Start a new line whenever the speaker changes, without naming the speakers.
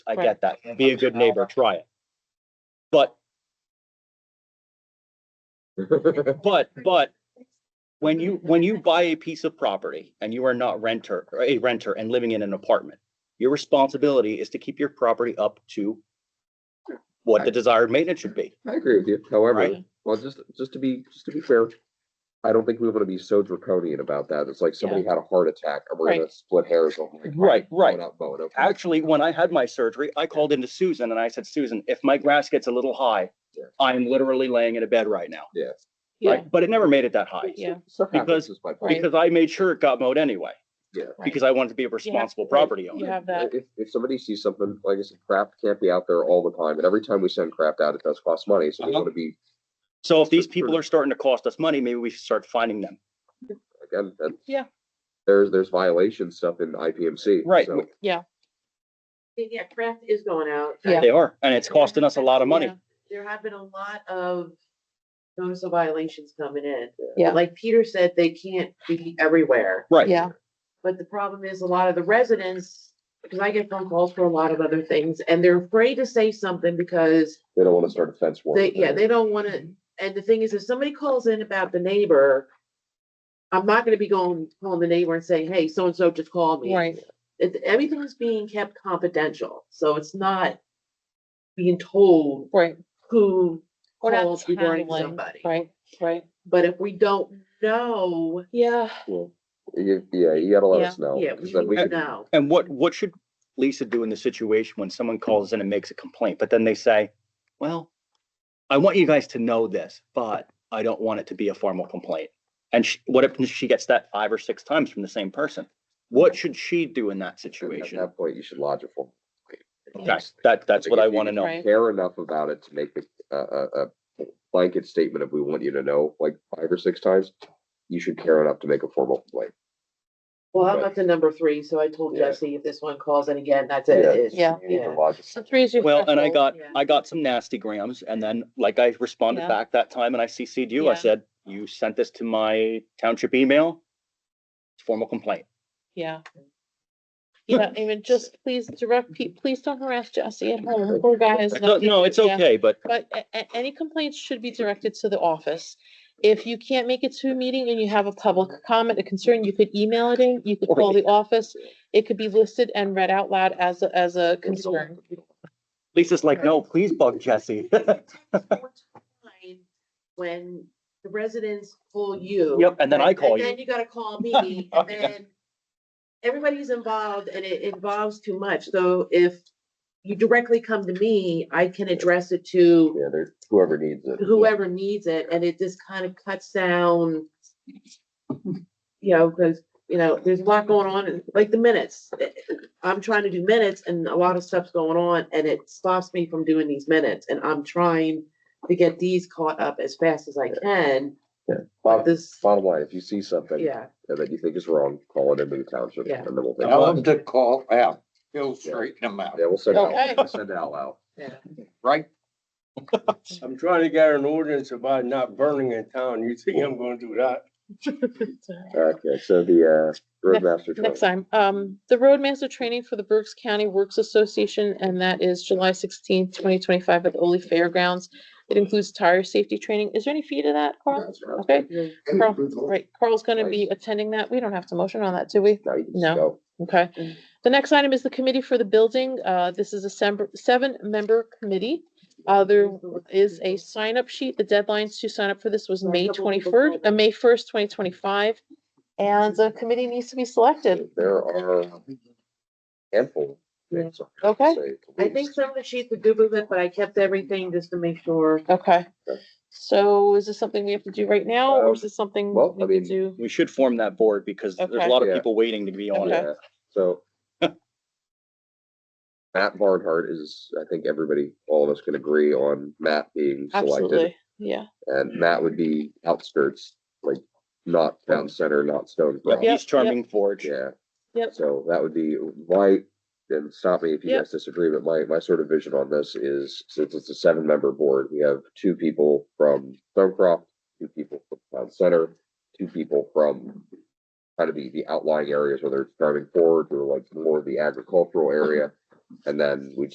I
Right.
get that. Be a good neighbor, try it. But, but, but when you, when you buy a piece of property and you are not renter, or a renter and living in an apartment, your responsibility is to keep your property up to what the desired maintenance should be.
I agree with you, however,
Right.
well, just, just to be, just to be fair, I don't think we want to be so draconian about that. It's like somebody had a heart attack and we're gonna split hairs on. like, oh,
Right, right.
Mowing up, mowing up.
Actually, when I had my surgery, I called into Susan and I said, Susan, if my grass gets a little high,
Yeah.
I am literally laying in a bed right now.
Yeah.
Yeah,
Right? But it never made it that high.
yeah,
Stuff happens,
Because-
is my point.
Right.
Because I made sure it got mowed anyway.
Yeah.
Right.
Because I wanted to be a responsible property
you
owner.
have that,
If, if somebody sees something, like I said, crap can't be out there all the time, and every time we send crap out, it does cost money, so we
Uh-huh.
want to be,
So if these people are starting to cost us money, maybe we should start finding them.
again, that.
Yeah.
There's, there's violation stuff in IPMC.
Right.
so-
Yeah, crap is going out.
Yeah.
They are, and it's costing us a lot of money.
Yeah.
There have been a lot of notice of violations coming in.
Yeah.
Like Peter said, they can't be everywhere.
Right.
yeah,
But the problem is a lot of the residents, because I get phone calls for a lot of other things and they're afraid to say something because
They don't want to start a fence war.
they, yeah, they don't want to. And the thing is, if somebody calls in about the neighbor, I'm not gonna be going, calling the neighbor and saying, hey, so-and-so just called me.
right,
it, everything is being kept confidential, so it's not being told
right.
who
We're not
calls regarding
handling-
somebody.
Right, right,
But if we don't know,
yeah,
Well, you- Yeah, you gotta let
Yeah.
us know.
yeah,
'cause
we
then we
need to
could-
know.
And what, what should Lisa do in the situation when someone calls in and makes a complaint, but then they say, well, I want you guys to know this, but I don't want it to be a formal complaint. And she, what if she gets that five or six times from the same person? What should she do in that
At
situation?
that point, you should lodge a formal.
Okay, that, that's what I want to know.
Right.
Care enough about it to make a, a, a blanket statement of we want you to know like five or six times. You should care enough to make a formal complaint.
Well, I'm
Right.
up to number three, so I told
Yeah.
Jesse, if this one calls in again, that's it.
Yeah.
it's-
Yeah.
You need to lodge
so
a-
three is your.
Well, and I
threshold.
got,
Yeah.
I got some nasty grams and then like I responded
Yeah.
back that time and I CC'd you, I
Yeah.
said, you sent this to my township email. It's a Formal complaint.
Yeah. Yeah, even just please direct, pe- please don't harass Jesse at home, poor guy has.
No,
nothing-
no, it's
yeah.
okay, but
But a- a- any complaints should be directed to the office. If you can't make it to a meeting and you have a public comment, a concern, you could email it in, you could call the office. It could be listed and read out loud as, a as a concern.
Lisa's like, no, please bug Jesse.
When the residents call you.
Yep, and then I
right,
call
And
you.
then you gotta call me, and then everybody's involved, and it involves too much, so if you directly come to me, I can address it to
Yeah, there, whoever needs it.
whoever needs it, and it just kind of cuts down. You know, because, you know, there's a lot going on, and like the minutes, I'm trying to do minutes and a lot of stuff's going on, and it stops me from doing these minutes, and I'm trying to get these caught up as fast as I can, but
Bottom,
this,
bottom line, if you see something
yeah.
that you think is wrong, call it into the township
Yeah.
and then we'll. take it.
Tell them to call out, he'll straighten them out,
Yeah, we'll send out,
Okay.
we'll send out loud.
right?
I'm trying to get an ordinance about not burning in town. You think I'm gonna do that?
Okay, so the, uh, roadmaster.
Next time, um, the Roadmaster Training for the Berks County Works Association, and that is July sixteenth, twenty twenty-five at the Ole Fairgrounds. It includes tire safety training. Is there any fee to that, Carl?
That's right.
Okay,
Yeah.
Carl, right, Carl's gonna be
Nice.
attending that. We don't have to motion on that, do we?
Now you can
No.
just go.
Okay.
Mm.
The next item is the committee for the building. Uh, this is a sem- seven-member committee. Uh, there is a sign-up sheet. The deadline to sign up for this was
There are a
May
couple people
twenty-first,
called.
uh, May first, twenty twenty-five. And the committee needs to be selected.
There are handful. of things I would
Okay.
say, at
I think
least.
some of the sheets were good with it, but I kept everything just to make sure.
Okay.
Okay.
So is this something we have to do right now, or is this something?
Um, well,
we
I
could
mean,
do?
We should form that board because there's
Okay.
a lot of
Yeah.
people waiting to be on it.
Okay.
Yeah, so. Matt Barnhart is, I think everybody, all of us can agree on Matt being selected.
Absolutely, yeah.
And Matt would be outskirts, like not town center, not Stone Brook.
Yeah,
Yep,
East Charming Forge.
Yeah.
Yep.
So that would be my, and stop me if you
Yep.
guys disagree, but my, my sort of vision on this is, since it's a seven member board, we have two people from Stonecroft, two people from Town Center, two people from kind of the, the outlying areas, whether it's driving forward or like more of the agricultural area. And then we